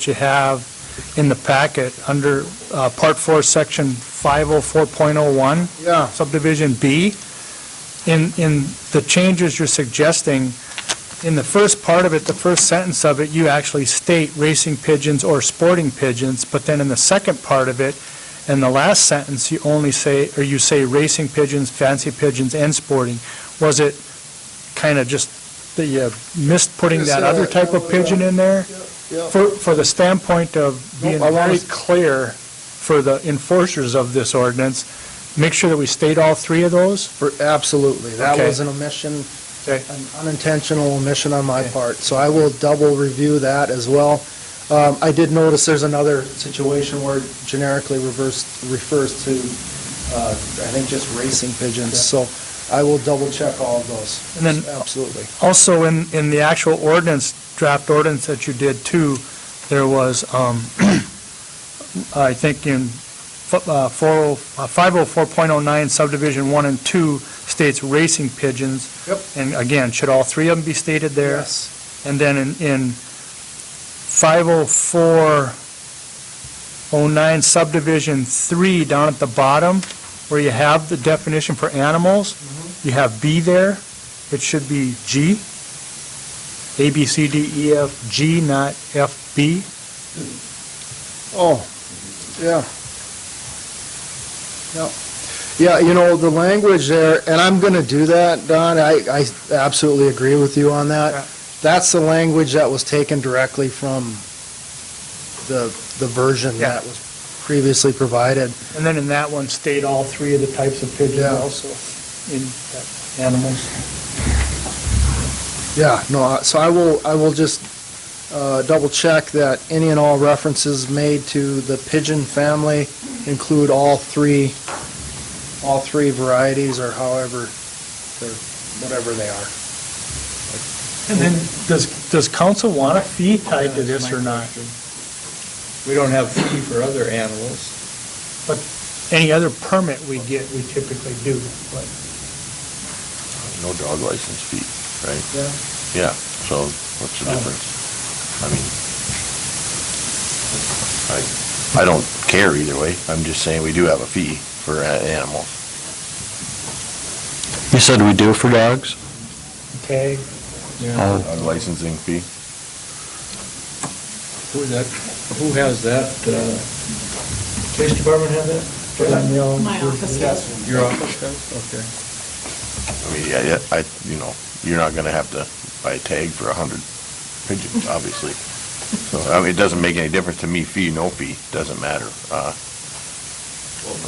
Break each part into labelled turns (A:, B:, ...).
A: that you have in the packet under uh, Part 4, Section 504.01.
B: Yeah.
A: Subdivision B. In, in the changes you're suggesting, in the first part of it, the first sentence of it, you actually state racing pigeons or sporting pigeons, but then in the second part of it, in the last sentence, you only say, or you say racing pigeons, fancy pigeons, and sporting. Was it kind of just that you missed putting that other type of pigeon in there?
B: Yeah,
A: For, for the standpoint of being
B: Nope, I wanna
A: very
B: s-
A: clear for the enforcers of this ordinance, make sure that we state all three of those?
B: for- absolutely. That
A: Okay.
B: was an omission,
A: Okay.
B: an unintentional omission on my
A: Okay.
B: part, so I will double review that as well. Um, I did notice there's another situation where generically reversed, refers to, uh, I think just racing pigeons, so I will double check all of those.
A: And then-
B: Absolutely.
A: Also, in, in the actual ordinance, draft ordinance that you did too, there was, um, I think in fo- uh, 40 uh, 504.09 subdivision 1 and 2 states racing pigeons.
B: Yep.
A: And again, should all three of them be stated there?
B: Yes.
A: And then in, in 50409 subdivision 3, down at the bottom, where you have the definition for animals, you have B there, it should be G. A, B, C, D, E, F, G, not F, B.
B: Oh, yeah. Yep. Yeah, you know, the language there, and I'm going to do that, Don, I, I absolutely agree with you on
A: Yeah.
B: that. That's the language that was taken directly from the, the version
A: Yeah.
B: that was previously provided.
A: And then in that one, state all three of the types of pigeons
B: Yeah.
A: also, in animals.
B: Yeah, no, I- so I will, I will just uh, double check that any and all references made to the pigeon family include all three, all three varieties or however, they're whatever they are.
A: And then, does, does council want a fee tied to this or not?
C: We don't have fee for other animals.
A: Any other permit we get, we typically do, but.
D: no dog license fee, right?
B: Yeah.
D: Yeah, so what's the difference? I mean, I, I don't care either way. I'm just saying we do have a fee for a- animals.
E: You said we do for dogs?
A: Okay.
E: Oh,
D: Dog Licensing fee?
C: Who that, who has that, uh, police department have that?
F: My office does.
C: Your office does?
D: I
C: Okay.
D: mean, yeah, yeah, I, you know, you're not gonna have to buy a tag for a hundred pigeons, obviously. So, I mean, it doesn't make any difference to me, fee, no fee, doesn't matter. Uh,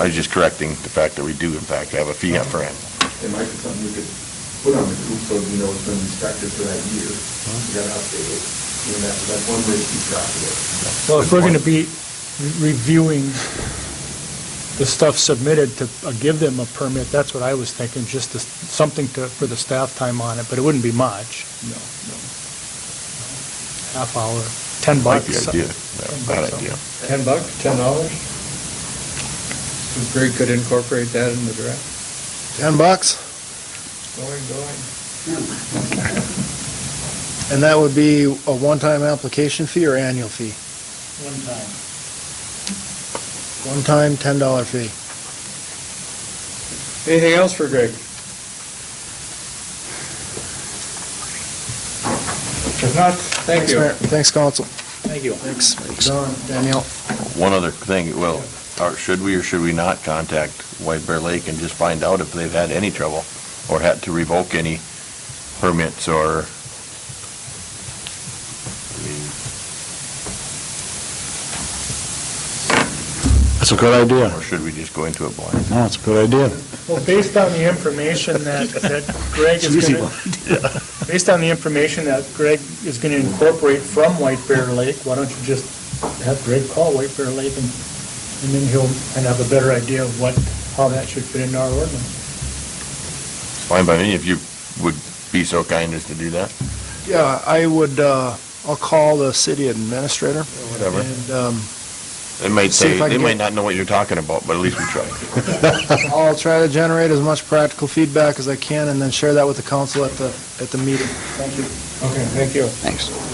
D: I was just correcting the fact that we do in fact have a fee for animals.
G: It might be something we could put on the coop so we know it's been inspected for that year. We gotta update it. You know, that's, that's one way to keep track of it.
A: Well, if we're going to be reviewing the stuff submitted to uh, give them a permit, that's what I was thinking, just to- something to, for the staff time on it, but it wouldn't be much.
C: No,
A: Half hour, 10
D: Like the
A: bucks. Ten
D: idea, Yeah,
A: bucks,
D: bad idea.
C: Ten bucks, ten dollars? Greg could incorporate that in the draft.
B: 10 bucks,
C: Going, going.
B: and that would be a one-time application fee or annual fee? One-time, $10 fee.
C: Anything else for Greg? If not, thank
B: Thanks,
C: you.
B: Mayor. Thanks, Council.
C: Thank you.
B: Thanks, Don, Danielle.
D: One other thing, well, or should we or should we not contact White Bear Lake and just find out if they've had any trouble or had to revoke any permits or? I mean,
E: that's a good idea.
D: Or should we just go into it blind?
E: No, it's a good idea.
A: Well, based on the information that, that Greg is going to, based on the information that Greg is going to incorporate from White Bear Lake, why don't you just have Greg call White Bear Lake and, and then he'll, and have a better idea of what, how that should fit into our ordinance.
D: Fine by me if you would be so kind as to do that.
B: Yeah, I would, uh, I'll call the city administrator.
D: whatever.
B: And, um,
D: They might
B: See
D: say,
B: if I
D: they
B: can
D: might
B: get-
D: not know what you're talking about, but at least we tried.
B: I'll try to generate as much practical feedback as I can and then share that with the council at the, at the meeting.
C: Okay, thank you.
E: Thanks.